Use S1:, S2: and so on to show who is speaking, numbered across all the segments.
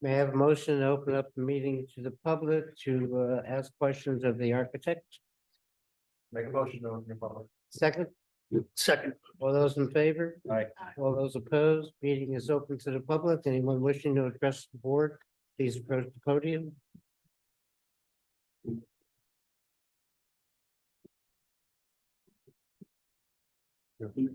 S1: May I have a motion to open up the meeting to the public to uh, ask questions of the architect?
S2: Make a motion to open the public.
S1: Second,
S2: Second.
S1: all those in favor?
S2: Aye.
S1: All those opposed? Meeting is open to the public. Anyone wishing to address the board, please approach the podium.
S3: Do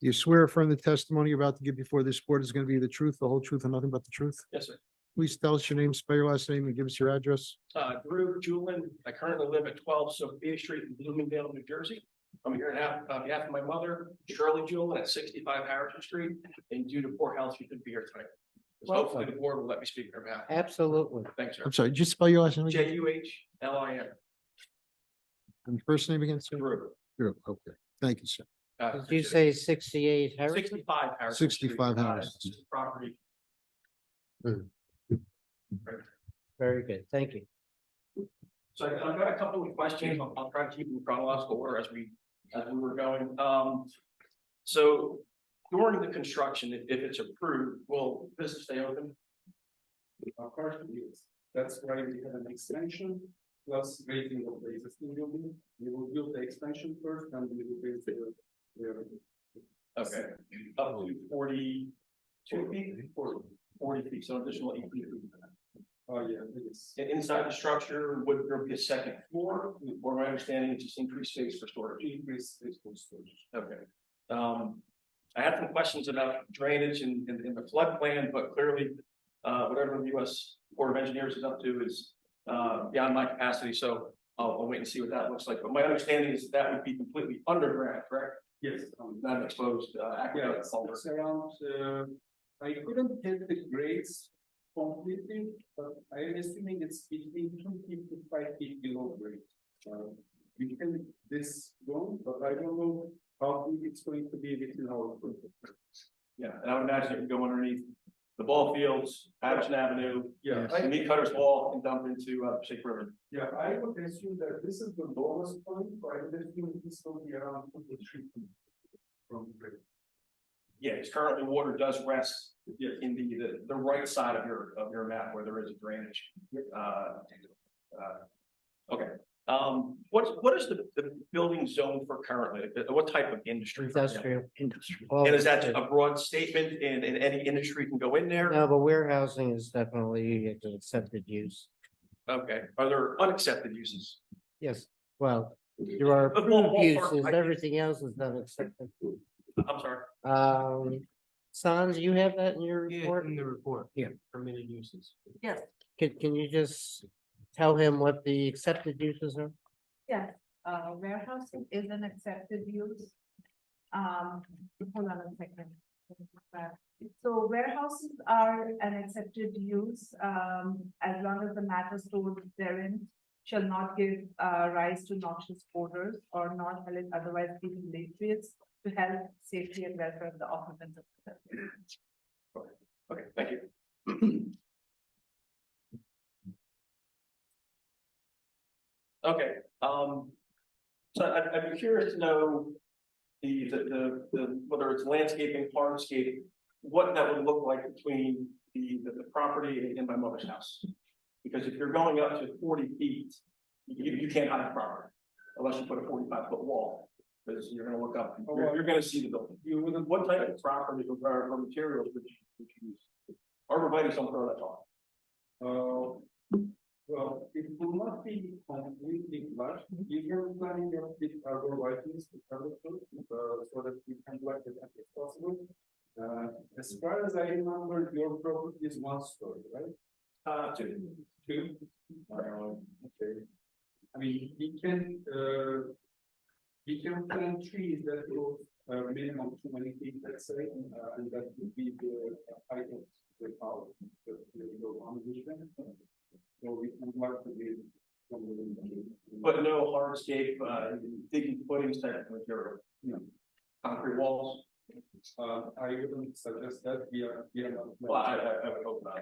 S3: you swear affirm the testimony you're about to give before this board is going to be the truth, the whole truth, and nothing but the truth?
S4: Yes, sir.
S3: Please tell us your name, spell your last name, and give us your address.
S4: Uh, Drew Julin, I currently live at twelve Sophia Street in Bloomingdale, New Jersey. I'm here on half- on behalf of my mother, Shirley Julin, at sixty-five Harrison Street, and due to poor health, she couldn't be here tonight. So Hopefully the board will let me speak on her behalf.
S1: Absolutely.
S4: Thanks, sir.
S3: I'm sorry, just spell your last name again,
S4: J U H L I N,
S3: and first name again, sir?
S4: Drew.
S3: Drew, Okay, thank you, sir.
S4: Uh,
S1: Did you say sixty-eight Harrison?
S4: Sixty-five Harrison. Street,
S3: 65
S4: uh,
S3: Harrison.
S4: this is Property.
S1: Very good, thank you.
S4: So I- I've got a couple of questions. I'll, I'll try to keep them in chronological order as we, as we were going. Um, so during the construction, if, if it's approved, will business stay open?
S5: Of course, it is. That's why we have an extension, plus raising of the existing building. We will build the extension first and we will build the. the-
S4: Okay, up to forty two feet, or forty feet, so additional eight feet.
S5: Oh, yeah, it is.
S4: And Inside the structure, would there be a second floor? Or my understanding, it's just increased space for storage?
S5: Increase space for storage.
S4: Okay, um, I had some questions about drainage in, in, in the floodplain, but clearly, uh, whatever the US Board of Engineers is up to is, uh, beyond my capacity, so I'll, I'll wait and see what that looks like, but my understanding is that would be completely underground, correct?
S5: Yes. um,
S4: Not an exposed, uh,
S5: Yeah,
S4: aqueduct
S5: it's
S4: culvert.
S5: it's around, uh, I couldn't tell the grades completely, but I'm assuming it's between two feet to five feet below grade. Uh, We can this go, but I don't know how big it's going to be within our. group.
S4: Yeah, and I would imagine it would go underneath the ball fields, Patterson Avenue,
S5: Yeah, I-
S4: the meat cutters wall, and dump into, uh, Shake River.
S5: Yeah, I would assume that this is the lowest point, but I would assume this will be around two to three feet from grade.
S4: Yeah, it's currently water does rest
S5: Yes.
S4: in the, the, the right side of your, of your map where there is a drainage. Uh, uh, Okay, um, what's, what is the, the building zone for currently? Uh, What type of industry?
S1: Industrial.
S4: Industry.
S1: All
S4: And is that
S1: industry.
S4: a broad statement and, and any industry can go in there?
S1: No, but warehousing is definitely an accepted use.
S4: Okay, are there unaccepted uses?
S1: Yes, well, there are
S4: But more-
S1: approved
S4: more-
S1: uses,
S4: I-
S1: everything else is not accepted.
S4: I'm sorry,
S1: Um, Sans, you have that in your report?
S2: the report.
S1: Yeah.
S2: Permitted uses.
S1: Can, can you just tell him what the accepted uses are?
S6: Yes, uh, warehousing is an accepted use. Um, hold on a second. So warehouses are an accepted use, um, as long as the matter stored therein shall not give, uh, rise to noxious odors or not shall it otherwise be deleterious to health, safety and welfare of the occupants of the facility.
S4: okay, thank you. Okay, um, so I, I'd be curious to know the, the, the- the, whether it's landscaping, hardscape, what that would look like between the, the the property and my mother's house. Because if you're going up to forty feet, you, you can't hide the property unless you put a forty-five foot wall, because you're gonna look up, you're, you're gonna see the building.
S5: You wouldn't,
S4: What type of property or, or materials would you, would you use? Arborvitae's don't grow that tall.
S5: uh, well, it will not be completely flush. You can plan it out with other whiteness to cover through, uh, so that we can block it as possible. Uh, as far as I remember, your property is one story, right?
S4: Uh, two.
S5: Two? Okay. I mean, we can, uh. We can plant trees that will, uh, minimum two many feet, let's say, uh, and that would be the height of the house. That we go on vision. So we can work with it. from within the-
S4: But no hardscape, uh, digging footings type of material,
S5: No.
S4: concrete walls,
S5: Uh, I wouldn't suggest that we are, we are not.
S4: well, I, I, I would hope not.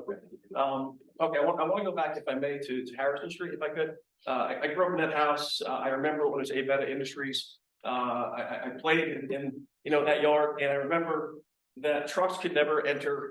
S4: Okay, um, okay, I want, I want to go back if I may to, to Harrison Street if I could. Uh, I, I grew up in that house, uh, I remember when it was Aveda Industries. Uh, I, I, I played in, in, you know, that yard and I remember that trucks could never enter